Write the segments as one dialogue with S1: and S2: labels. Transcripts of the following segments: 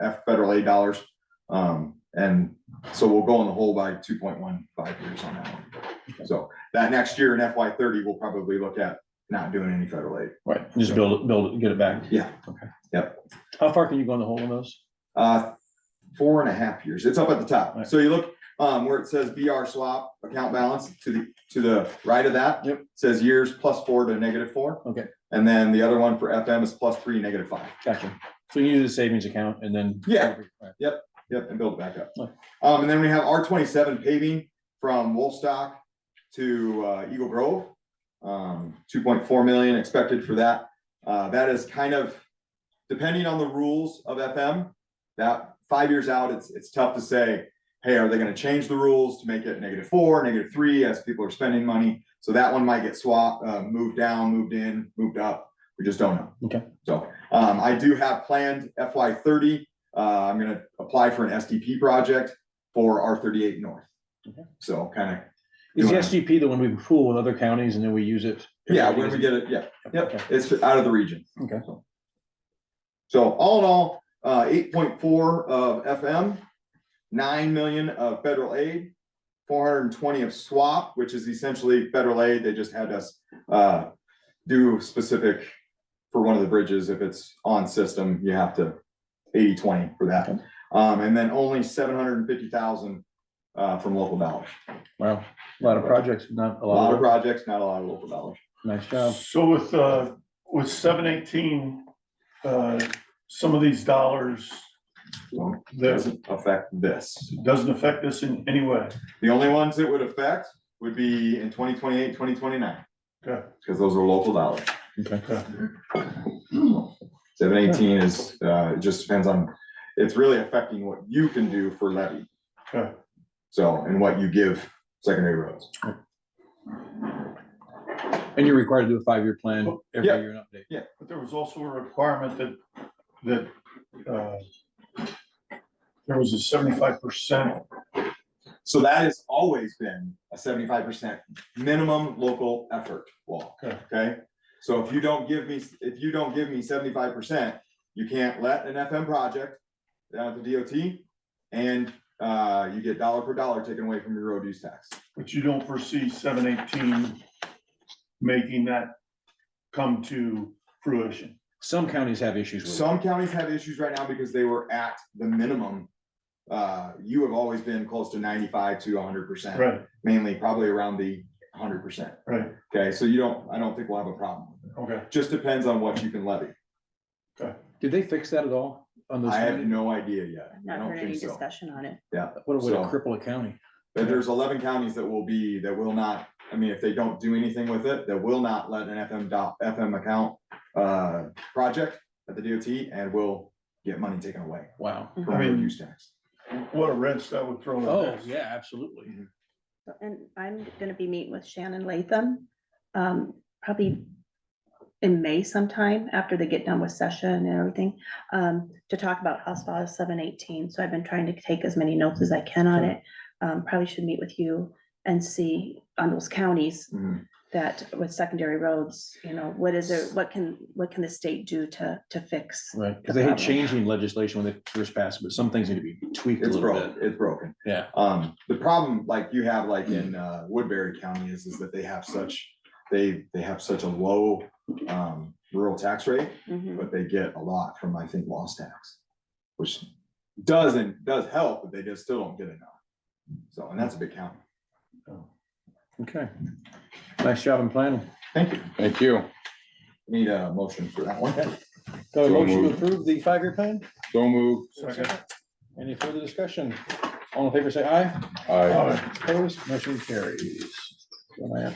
S1: F federal aid dollars. Um, and so we'll go in the hole by two point one five years on that one. So that next year in FY thirty, we'll probably look at not doing any federal aid.
S2: Right, just build it, build it, get it back.
S1: Yeah.
S2: Okay.
S1: Yep.
S2: How far can you go in the hole in those?
S1: Uh, four and a half years. It's up at the top.
S2: Right.
S1: So you look, um, where it says BR swap account balance to the, to the right of that.
S2: Yep.
S1: Says years plus four to negative four.
S2: Okay.
S1: And then the other one for FM is plus three, negative five.
S2: Gotcha. So you use the savings account and then.
S1: Yeah.
S2: Right.
S1: Yep, and build it back up.
S2: Right.
S1: Um, and then we have R twenty-seven paving from Wolfstock to uh, Eagle Grove. Um, two point four million expected for that. Uh, that is kind of, depending on the rules of FM, that five years out, it's, it's tough to say, hey, are they gonna change the rules to make it negative four, negative three, as people are spending money? So that one might get swapped, uh, moved down, moved in, moved up. We just don't know.
S2: Okay.
S1: So, um, I do have planned FY thirty uh, I'm gonna apply for an SDP project for R thirty-eight north.
S2: Okay.
S1: So kind
S2: Is the
S1: Yeah.
S2: SGP the one we pool with other counties and then we use it?
S1: of, yeah, when we get it, yeah,
S2: Okay.
S1: yep, it's out of the region.
S2: Okay.
S1: So- So all in all, uh, eight point four of FM, nine million of federal aid, four hundred and twenty of swap, which is essentially federal aid. They just had us, uh, do specific for one of the bridges. If it's on system, you have to 80-20 for that.
S2: Okay.
S1: Um, and then only seven hundred and fifty thousand, uh, from local dollars.
S2: Wow, a lot of projects, not a
S1: A lot of
S2: lot.
S1: projects, not a lot of local dollars.
S2: Nice job.
S3: So with, uh, with seven eighteen, uh, some of these dollars,
S1: So it
S3: that
S1: Doesn't affect this.
S3: doesn't affect us in any way.
S1: The only ones it would affect would be in 2028, 2029,
S3: Okay.
S1: because those are local dollars.
S2: Okay.
S1: Seven eighteen is, uh, it just depends on, it's really affecting what you can do for levy.
S3: Okay.
S1: So, and what you give secondary roads.
S2: And you're required to do a five-year plan every
S1: Yeah.
S2: year and update.
S3: But there was also a requirement that, that, uh, there was a seventy-five percent.
S1: So that has always been a seventy-five percent minimum local effort law,
S3: Okay.
S1: okay? So if you don't give me, if you don't give me seventy-five percent, you can't let an FM project down at the DOT. And, uh, you get dollar per dollar taken away from your road use tax.
S3: But you don't foresee seven eighteen making that come to fruition.
S2: Some counties have issues with it.
S1: Some counties have issues right now because they were at the minimum. Uh, you have always been close to ninety-five to hundred percent.
S3: Right,
S1: Mainly probably around the hundred percent.
S3: right,
S1: Okay, so you don't, I don't think we'll have a problem.
S3: okay.
S1: Just depends on what you can levy.
S2: Did they fix that at all on those?
S1: I have
S2: counties?
S1: no idea yet.
S4: I've
S1: I
S4: not
S1: don't
S4: heard any
S1: think so.
S4: discussion on it.
S2: What would
S1: so-
S2: cripple a county?
S1: But there's eleven counties that will be, that will not, I mean, if they don't do anything with it, that will not let an FM dot, FM account, uh, project at the DOT and will get money taken away
S2: Wow.
S1: from
S4: Uh-huh.
S3: I mean-
S1: road use tax.
S3: What a wrench that would throw. in
S2: Oh,
S3: this.
S2: yeah, absolutely.
S4: And I'm gonna be meeting with Shannon Latham, um, probably in May sometime, after they get done with session and everything, um, to talk about House File seven eighteen. So I've been trying to take as many notes as I can on it. Um, probably should meet with you and see on those counties
S1: Mhm.
S4: that with secondary roads, you know, what is it, what can, what can the state do to, to fix?
S2: Right, because they hate changing legislation when they first pass, it, but some things need to be tweaked a
S1: It's
S2: little bit.
S1: broken, it's broken.
S2: Yeah. Mm.
S1: Um, the problem like you have like in, uh, Woodbury County is, is that they have such, they, they have such a low, um, rural tax rate.
S4: Mhm.
S1: but they get a lot from, I think, loss tax, which doesn't, does help, but they just still don't get enough. So, and that's a big count.
S2: Okay. Nice job in planning.
S1: Thank you.
S5: Thank you.
S1: Need a motion for that one.
S2: So a
S5: So
S2: motion to
S5: moved.
S2: approve the five-year plan?
S5: So moved.
S3: Second.
S2: Any further discussion? All in favor, say aye.
S5: Aye.
S3: Alright.
S2: Opposed, motion carries. Go ahead.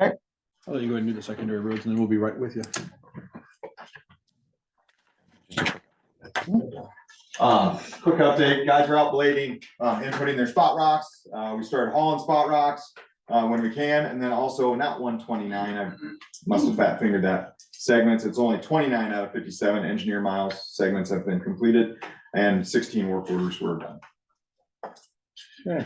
S2: I'll let you go ahead and do the secondary roads and then we'll be right with you.
S1: Um, quick update, guys are out blading, uh, inputting their spot rocks. Uh, we started hauling spot rocks, uh, when we can, and then also not one twenty-nine, I must have fat fingered that. Segments, it's only twenty-nine out of fifty-seven engineer miles segments have been completed and sixteen work orders were done.
S2: Yeah.